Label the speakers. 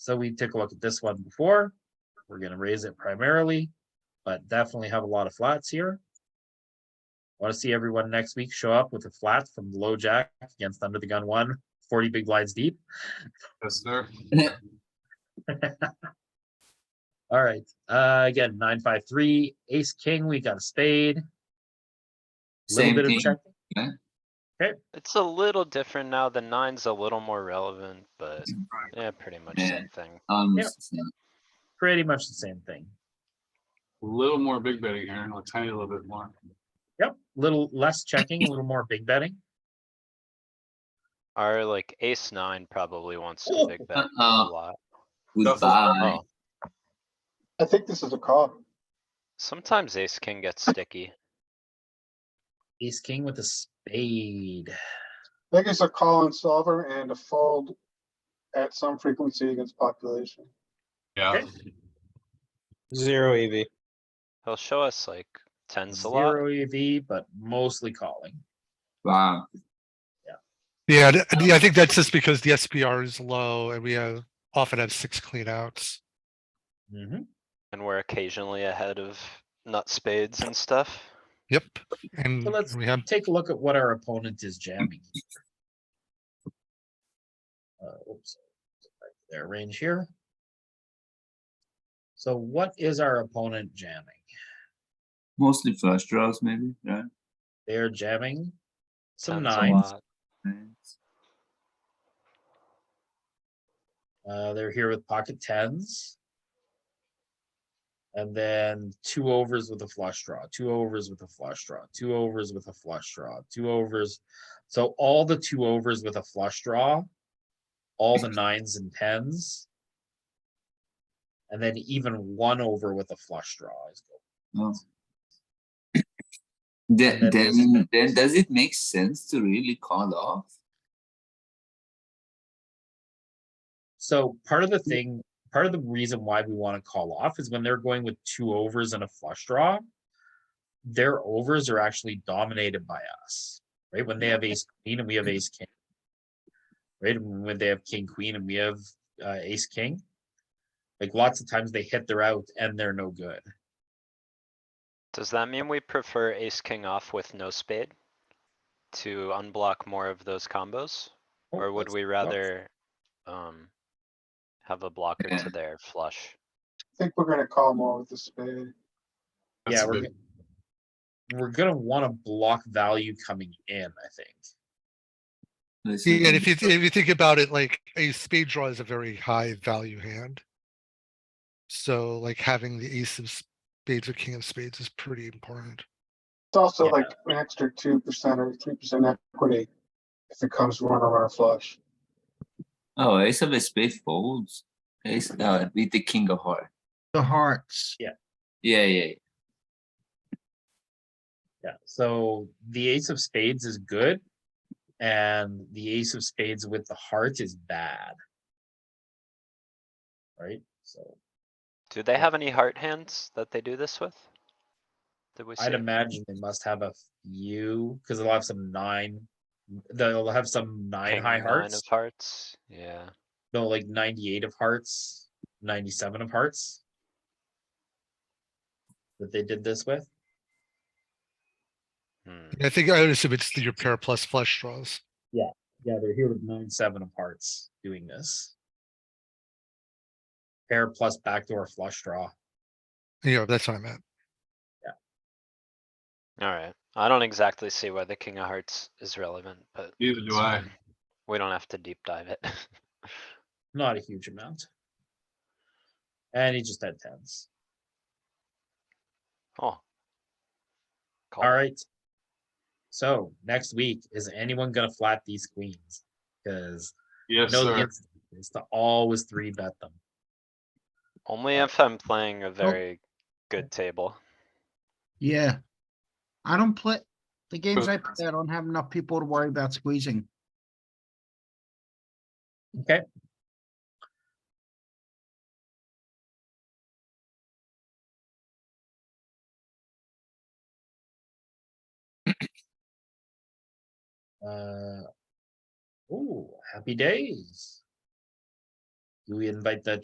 Speaker 1: So we take a look at this one before. We're gonna raise it primarily, but definitely have a lot of flats here. Want to see everyone next week show up with a flat from low jack against under the gun one, 40 big blinds deep.
Speaker 2: Yes, sir.
Speaker 1: All right, uh, again, nine, five, three, ace, king, we got a spade. Little
Speaker 3: Same
Speaker 1: bit of
Speaker 3: thing.
Speaker 1: checking.
Speaker 4: It's a little different now. The nine's a little more relevant, but yeah, pretty much
Speaker 3: Yeah.
Speaker 4: same thing.
Speaker 3: Almost the um, same.
Speaker 1: pretty much the same thing.
Speaker 2: A little more big betting here, a tiny little bit more.
Speaker 1: Yep, little less checking, a little more big betting.
Speaker 4: Our like ace nine probably wants
Speaker 1: Oh,
Speaker 4: to big bet a
Speaker 3: uh-uh.
Speaker 4: lot.
Speaker 3: Goodbye.
Speaker 4: Oh,
Speaker 5: I think this is a call.
Speaker 4: sometimes ace king gets sticky.
Speaker 1: Ace, king with a spade.
Speaker 5: I think it's a call on solver and a fold at some frequency against population.
Speaker 2: Yeah,
Speaker 6: Zero EV.
Speaker 4: He'll show us like tens a lot.
Speaker 1: E Zero E EV, but mostly calling.
Speaker 3: Wow.
Speaker 7: Yeah, th- yeah, I think that's just because the SPR is low and we have, often have six cleanouts.
Speaker 1: Mhm.
Speaker 4: And we're occasionally ahead of nut spades and stuff.
Speaker 7: Yep, and
Speaker 1: let's-
Speaker 7: we have,
Speaker 1: Take a look at what our opponent is jamming. here. Uh, oops. Back to Their range here. So what is our opponent jamming?
Speaker 3: Mostly first draws, maybe, right?
Speaker 1: They're jamming some
Speaker 4: Tens a
Speaker 1: nines.
Speaker 4: lot.
Speaker 3: Nines.
Speaker 1: Uh, they're here with pocket tens. And then two overs with a flush draw, two overs with a flush draw, two overs with a flush draw, two overs. So all the two overs with a flush draw, all the nines and tens. And then even one over with a flush draw is good.
Speaker 3: Oh.
Speaker 1: then
Speaker 3: Then,
Speaker 1: there's-
Speaker 3: then, then does it make sense to really call off?
Speaker 1: So part of
Speaker 4: Mm.
Speaker 1: the thing, part of the reason why we want to call off is when they're going with two overs and a flush draw, their overs are actually dominated by us, right? When they have
Speaker 4: Mm.
Speaker 1: ace queen and we have ace king. Right? And when they have king queen and we have uh, ace king. Like lots of times they hit their out and they're no good.
Speaker 4: Does that mean we prefer ace king off with no spade? To unblock more of those combos?
Speaker 1: Oh,
Speaker 4: Or would
Speaker 1: that's-
Speaker 4: we
Speaker 1: that's-
Speaker 4: rather, um, have a blocker
Speaker 3: Yeah.
Speaker 4: to their flush?
Speaker 5: I think we're gonna call more with the spade.
Speaker 2: that's
Speaker 1: Yeah,
Speaker 2: a
Speaker 1: we're,
Speaker 2: big,
Speaker 1: gonna- we're gonna want to block value coming in, I think.
Speaker 3: Let's
Speaker 7: yeah, and
Speaker 3: see.
Speaker 7: if you, if you think about it, like a spade draw is a very high value hand. So like having the ace of spades or king of spades is pretty important.
Speaker 5: It's also
Speaker 1: Yeah.
Speaker 5: like an extra two percent or three percent equity if it comes run or run flush.
Speaker 3: Oh, ace of a spade folds. Ace, uh, with the king of heart.
Speaker 8: The hearts.
Speaker 3: Yeah, yeah, yeah.
Speaker 1: Yeah, so the ace of spades is good. And the ace of spades with the heart is bad. Right, so
Speaker 4: Do they have any heart hands that they do this with? Did we
Speaker 1: I'd
Speaker 4: see?
Speaker 1: imagine they must have a few, because they'll have some nine. They'll have some nine
Speaker 4: King
Speaker 1: high
Speaker 4: nine
Speaker 1: hearts,
Speaker 4: of Hearts, yeah.
Speaker 1: no, like ninety-eight of hearts, ninety-seven of hearts. That they did this with,
Speaker 4: Hmm.
Speaker 7: I think I would assume it's your pair plus flush draws.
Speaker 1: yeah, they're here with nine, seven of hearts doing this. Pair plus backdoor flush draw.
Speaker 7: You know, that's what I meant.
Speaker 4: Alright, I don't exactly see why the king of hearts is relevant, but
Speaker 2: neither do I.
Speaker 4: we don't have to deep dive it.
Speaker 1: not a huge amount. And he just had tens.
Speaker 4: Oh.
Speaker 2: Oh.
Speaker 4: Call.
Speaker 1: All right. So next week, is anyone gonna flat these queens? Because I
Speaker 2: Yes,
Speaker 1: know the
Speaker 2: sir.
Speaker 1: instinct is to always three bet them.
Speaker 4: Only if I'm playing a very good table.
Speaker 8: Yeah. I don't play, the games I play, I don't have enough people to worry about squeezing.
Speaker 1: Okay. Uh, ooh, happy days. Do we invite the